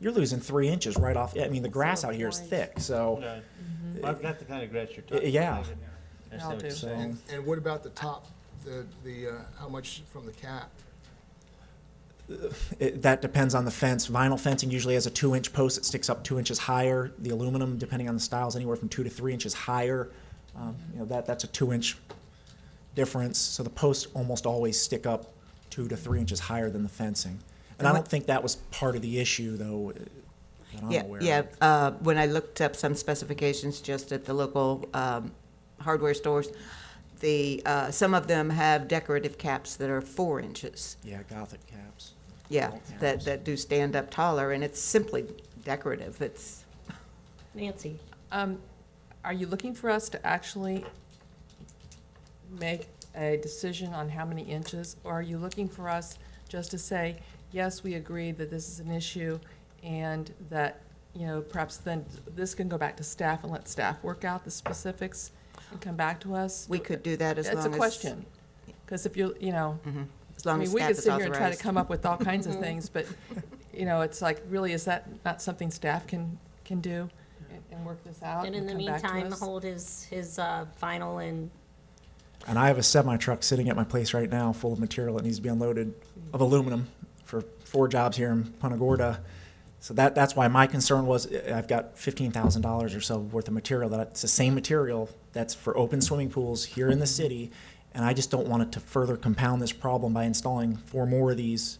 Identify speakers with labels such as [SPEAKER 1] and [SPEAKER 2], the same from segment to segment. [SPEAKER 1] you're losing three inches right off. I mean, the grass out here is thick, so
[SPEAKER 2] No, uh, I've got the kind of grass you're
[SPEAKER 1] Y-
[SPEAKER 2] talking
[SPEAKER 1] yeah.
[SPEAKER 2] about. I understand
[SPEAKER 3] I'll
[SPEAKER 2] what you're
[SPEAKER 3] do.
[SPEAKER 2] saying.
[SPEAKER 4] And, and what about the top, the, the, uh, how much from the cap?
[SPEAKER 1] it, that depends on the fence. Vinyl fencing usually has a two inch post that sticks up two inches higher. The aluminum, depending on the styles, anywhere from two to three inches higher. Um, you know, that, that's a two inch difference. So the posts almost always stick up two to three inches higher than the fencing. And I don't think that was part of the issue, though, uh, that I'm
[SPEAKER 5] Yeah,
[SPEAKER 1] aware
[SPEAKER 5] yeah.
[SPEAKER 1] of.
[SPEAKER 5] uh, When I looked up some specifications just at the local um, hardware stores, the, uh, some of them have decorative caps that are four inches.
[SPEAKER 1] Yeah, Gothic caps.
[SPEAKER 5] Yeah,
[SPEAKER 1] Wall caps.
[SPEAKER 5] that, that do stand up taller, and it's simply decorative. It's,
[SPEAKER 6] Nancy,
[SPEAKER 3] Um, Are you looking for us to actually make a decision on how many inches? Or are you looking for us just to say, yes, we agree that this is an issue and that, you know, perhaps then this can go back to staff and let staff work out the specifics and come back to us?
[SPEAKER 5] we could do that as long as. Mm-hmm.
[SPEAKER 3] It's a question. Because if you're, you know,
[SPEAKER 5] As long
[SPEAKER 3] I mean,
[SPEAKER 5] as staff
[SPEAKER 3] we could
[SPEAKER 5] is
[SPEAKER 3] sit here and try to
[SPEAKER 5] authorized.
[SPEAKER 3] come up with all kinds of things, but, you know, it's like, really, is that not something staff can, can do and- and work this out
[SPEAKER 6] and in
[SPEAKER 3] and
[SPEAKER 6] the
[SPEAKER 3] Uh, come back to
[SPEAKER 6] meantime,
[SPEAKER 3] us?
[SPEAKER 6] hold his, his uh, final and,
[SPEAKER 1] And I have a semi truck sitting at my place right now full of material that needs to be unloaded of aluminum for four jobs here in Punta Gorda. So that, that's why my concern was uh, I've got $15,000 or so worth of material that it's the same material that's for open swimming pools here in the city. And I just don't want it to further compound this problem by installing four more of these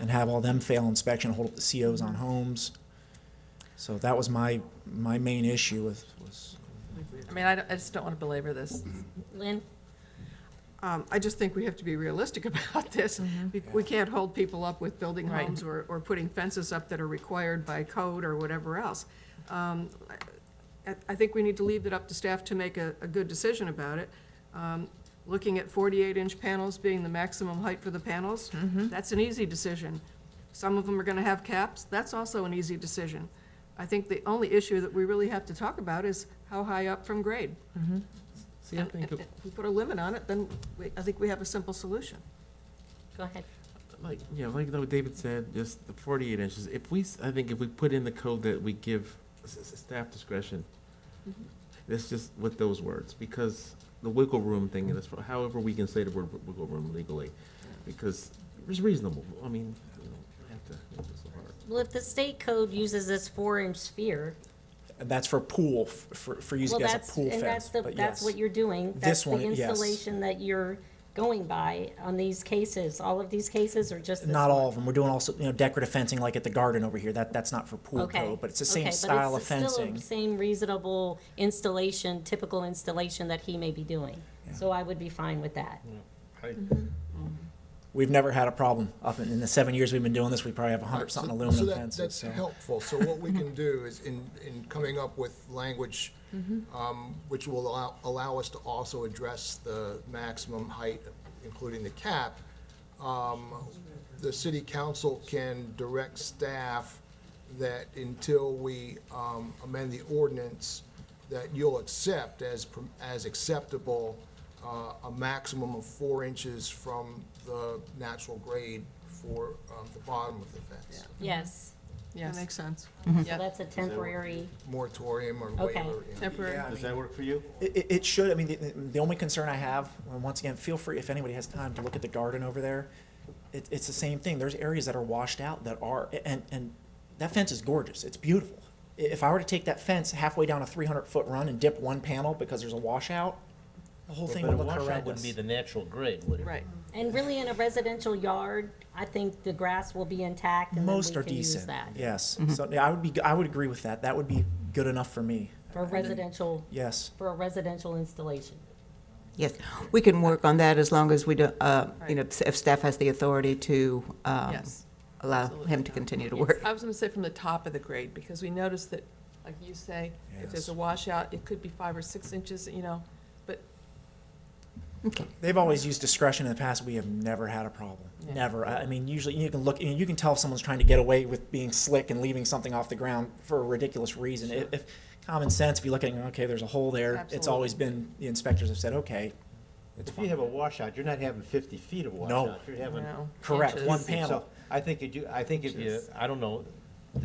[SPEAKER 1] and have all them fail inspection, hold up the COs on homes. So that was my, my main issue with, was
[SPEAKER 3] I mean, I don't- I just don't want to belabor this.
[SPEAKER 6] Lynn,
[SPEAKER 7] Um, I just think we have to be realistic about this. We- We can't hold people up with building
[SPEAKER 3] Right.
[SPEAKER 7] homes or, or putting fences up that are required by code or whatever else. Um, I, I think we need to leave it up to staff to make a, a good decision about it. Um, Looking at forty-eight inch panels being the maximum height for the panels, that's an easy decision. Some of them are gonna have caps, that's also an easy decision. I think the only issue that we really have to talk about is how high up from grade.
[SPEAKER 2] See, I
[SPEAKER 7] And-
[SPEAKER 2] think,
[SPEAKER 7] and- and If we put a limit on it, then we- I think we have a simple solution.
[SPEAKER 6] go ahead.
[SPEAKER 8] Like, yeah, like though David said, just the forty-eight inches, if we, s- I think if we put in the code that we give s- s- staff discretion, that's just with those words, because the wiggle room thing, and that's however we can say the word wi- wiggle room legally, because it's reasonable, I mean, you know, I have to, it's so hard.
[SPEAKER 6] Well, if the state code uses this four-inch sphere,
[SPEAKER 1] And that's for pool, f- for, for
[SPEAKER 6] well,
[SPEAKER 1] using as a
[SPEAKER 6] that's,
[SPEAKER 1] pool
[SPEAKER 6] and
[SPEAKER 1] fence,
[SPEAKER 6] that's the,
[SPEAKER 1] but
[SPEAKER 6] that's
[SPEAKER 1] yes.
[SPEAKER 6] what you're doing. That's
[SPEAKER 1] This
[SPEAKER 6] the
[SPEAKER 1] one, yes.
[SPEAKER 6] installation that you're going by on these cases. All of these cases are just this
[SPEAKER 1] Not
[SPEAKER 6] one?
[SPEAKER 1] all of them, we're doing also, you know, decorative fencing like at the garden over here, that, that's not for pool
[SPEAKER 6] Okay.
[SPEAKER 1] code, but it's the same
[SPEAKER 6] Okay, but
[SPEAKER 1] style of
[SPEAKER 6] it's still
[SPEAKER 1] fencing.
[SPEAKER 6] Same reasonable installation, typical installation that he may be doing. So I would be fine with that.
[SPEAKER 2] I-
[SPEAKER 1] We've never had a problem up in, in the seven years we've been doing this, we probably have a hundred something
[SPEAKER 4] So-
[SPEAKER 1] aluminum
[SPEAKER 4] that-
[SPEAKER 1] fences, so.
[SPEAKER 4] That's helpful. So what we can do is in, in coming up with language, um, which will allow, allow us to also address the maximum height, including the cap, um, the city council can direct staff that until we um, amend the ordinance, that you'll accept as, per- as acceptable uh, a maximum of four inches from the natural grade for um, the bottom of the fence.
[SPEAKER 6] Yes,
[SPEAKER 7] That
[SPEAKER 3] Yes.
[SPEAKER 7] makes sense.
[SPEAKER 6] so that's a temporary,
[SPEAKER 4] Moratorium or
[SPEAKER 6] Okay.
[SPEAKER 4] waiver. you know.
[SPEAKER 3] Temporary.
[SPEAKER 2] Does that work for you?
[SPEAKER 1] It, it- it should, I mean, the, the only concern I have, and once again, feel free, if anybody has time, to look at the garden over there. It, it's the same thing, there's areas that are washed out that are, and, and that fence is gorgeous, it's beautiful. I- If I were to take that fence halfway down a three hundred foot run and dip one panel because there's a washout, the whole thing
[SPEAKER 2] But
[SPEAKER 1] would
[SPEAKER 2] a
[SPEAKER 1] look
[SPEAKER 2] washout
[SPEAKER 1] horrendous.
[SPEAKER 2] wouldn't be the natural grade, would it?
[SPEAKER 3] Right.
[SPEAKER 6] and really in a residential yard, I think the grass will be intact and then we
[SPEAKER 1] Most are
[SPEAKER 6] can use
[SPEAKER 1] decent,
[SPEAKER 6] that.
[SPEAKER 1] yes.
[SPEAKER 2] Mm-hmm.
[SPEAKER 1] So yeah, I would be, I would agree with that, that would be good enough for me,
[SPEAKER 6] For a residential,
[SPEAKER 1] yes.
[SPEAKER 6] for a residential installation.
[SPEAKER 5] Yes, we can work on that as long as we don't, uh, you know, if staff has the authority to um,
[SPEAKER 3] Yes.
[SPEAKER 5] allow him
[SPEAKER 3] absolutely.
[SPEAKER 5] to continue to
[SPEAKER 3] Yes.
[SPEAKER 5] work.
[SPEAKER 3] I was going to say from the top of the grade, because we noticed that, like you say, if there's a washout, it could be five or six inches, you know, but
[SPEAKER 1] They've always used discretion in the past. We have never had a problem.
[SPEAKER 3] Yeah.
[SPEAKER 1] Never. I I mean, usually you can look, you, you can tell if someone's trying to get away with being slick and leaving something off the ground for a ridiculous reason. If, if common sense, if you look at, it, okay, there's a hole there. It's
[SPEAKER 3] Absolutely.
[SPEAKER 1] always been the inspectors have said, okay, it's
[SPEAKER 2] If you
[SPEAKER 1] fine.
[SPEAKER 2] have a washout, you're not having fifty feet of washout. You're
[SPEAKER 3] you
[SPEAKER 2] having
[SPEAKER 3] know.
[SPEAKER 1] Correct.
[SPEAKER 3] inches.
[SPEAKER 1] One panel.
[SPEAKER 2] So I think you do, I think if you, I don't know,